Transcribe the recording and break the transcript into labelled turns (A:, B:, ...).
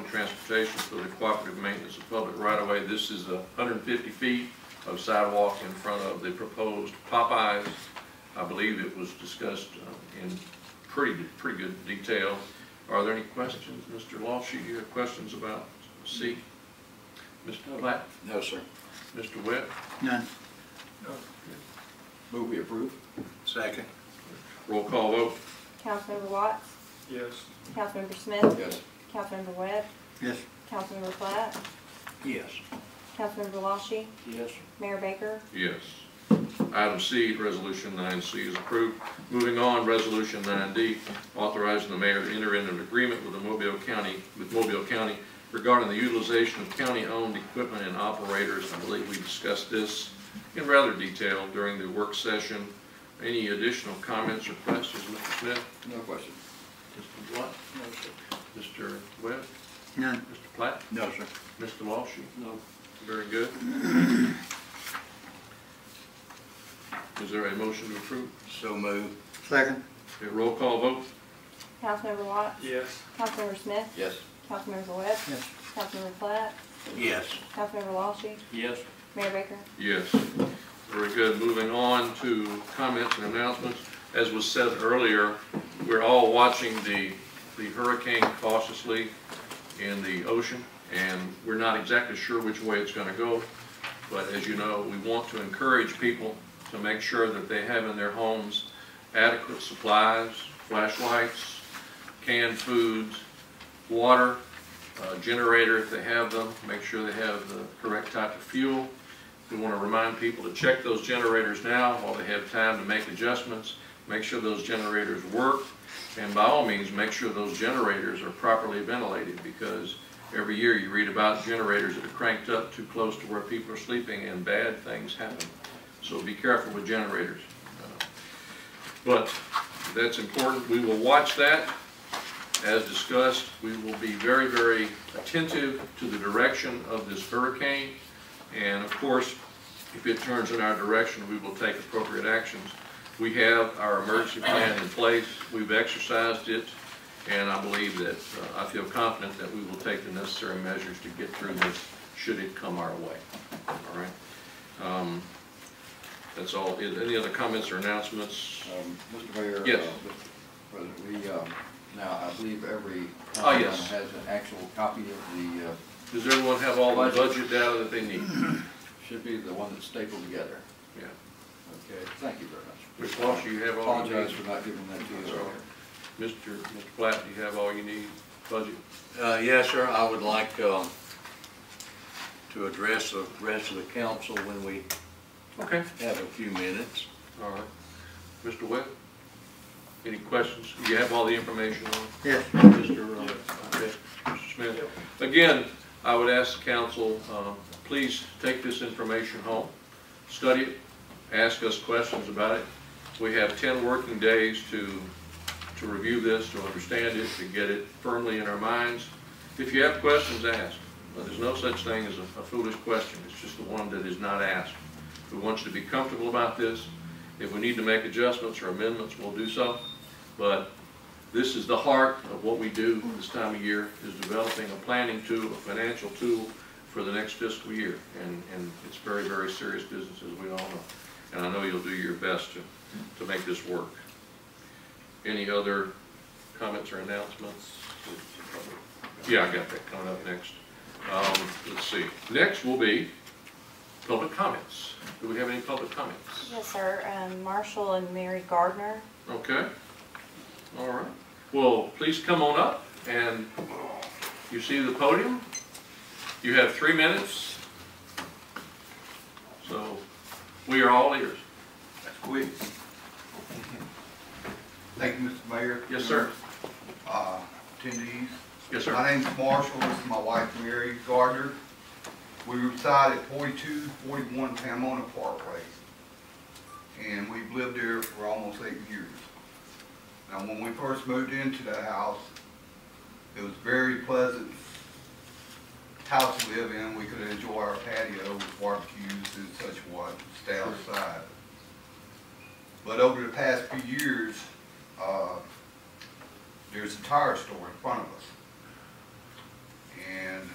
A: Transportation for the cooperative maintenance of public right-of-way. This is a hundred and fifty feet of sidewalk in front of the proposed Popeyes. I believe it was discussed uh, in pretty, pretty good detail. Are there any questions, Mr. Lawshie, you have questions about C? Mr. Black,
B: No, sir.
A: Mr. Webb?
C: None.
B: Move we approve?
C: Second.
A: Roll call vote.
D: Councilmember Watts,
E: Yes.
D: Councilmember Smith,
B: Yes.
D: Councilmember Webb,
C: Yes.
D: Councilmember Platt,
C: Yes.
D: Councilmember LaShie,
B: Yes.
D: Mayor Baker,
A: Yes. Item C, Resolution 9C is approved. Moving on, Resolution 9D, authorizing the mayor to enter into an agreement with the Mobile County, with Mobile County regarding the utilization of county-owned equipment and operators. I believe we discussed this in rather detail during the work session. Any additional comments or questions, Mr. Smith?
B: No question?
A: Mr. Blunt?
E: No, sir.
A: Mr. Webb?
C: None.
A: Mr. Platt?
B: No, sir.
A: Mr. LaShie?
E: No.
A: Very good. Is there a motion to approve?
B: So move?
C: Second.
A: Okay, roll call vote?
D: Councilmember Watts,
E: Yes.
D: Councilmember Smith,
B: Yes.
D: Councilmember Webb,
C: Yes.
D: Councilmember Platt,
B: Yes.
D: Councilmember LaShie,
E: Yes.
D: Mayor Baker.
A: Yes. Very good. Moving on to comments and announcements. As was said earlier, we're all watching the, the hurricane cautiously in the ocean, and we're not exactly sure which way it's gonna go. But as you know, we want to encourage people to make sure that they have in their homes adequate supplies, flashlights, canned foods, water, uh, generator if they have them, make sure they have the correct type of fuel. We want to remind people to check those generators now while they have time to make adjustments, make sure those generators work, and by all means, make sure those generators are properly ventilated, because every year you read about generators that are cranked up too close to where people are sleeping and bad things happen. So be careful with generators. But that's important, we will watch that. As discussed, we will be very, very attentive to the direction of this hurricane. And of course, if it turns in our direction, we will take appropriate actions. We have our emergency plan in place, we've exercised it, and I believe that, uh, I feel confident that we will take the necessary measures to get through this, should it come our way, all right? Um, That's all, Is- any other comments or announcements?
B: Um, Mr. Mayor?
A: Yes.
B: uh, Mr. President, we, um, now, I believe every.
A: Oh, yes.
B: councilman Has an actual copy of the, uh,
A: Does everyone have all the budget data that they need?
B: should be the one that's stapled together.
A: Yeah.
B: Okay, thank you very much.
A: Ms. Walsh, you have all you need?
B: Apologize for not giving that to you earlier.
A: Mr. Mr. Platt, do you have all you need, budget?
F: Uh, Yes, sir, I would like um, to address the rest of the council when we
A: Okay.
F: have a few minutes.
A: All right. Mr. Webb? Any questions? You have all the information on
C: Yes.
A: Mr. uh, okay, Mr. Smith? Again, I would ask the council, um, please take this information home, study it, ask us questions about it. We have 10 working days to, to review this, to understand it, to get it firmly in our minds. If you have questions, ask. But There's no such thing as a a foolish question, it's just the one that is not asked. We want you to be comfortable about this. If we need to make adjustments or amendments, we'll do so. But this is the heart of what we do this time of year, is developing a planning tool, a financial tool for the next fiscal year. And, and it's very, very serious business, as we all know. And I know you'll do your best to, to make this work. Any other comments or announcements? Yeah, I got that coming up next. Um, let's see. Next will be public comments. Do we have any public comments?
D: Yes, sir, um, Marshall and Mary Gardner.
A: Okay, all right. Well, please come on up, and you see the podium. You have three minutes. So, we are all ears.
G: That's quick. Thank you, Mr. Mayor.
A: Yes, sir.
G: Uh, Attendees.
A: Yes, sir.
G: My name's Marshall, this is my wife Mary Gardner. We reside at 4241 Pamona Parkway. And we've lived there for almost eight years. Now, when we first moved into the house, it was very pleasant house to live in. We could enjoy our patio with barbecues and such what, stay outside. But over the past few years, uh, there's a tire store in front of us.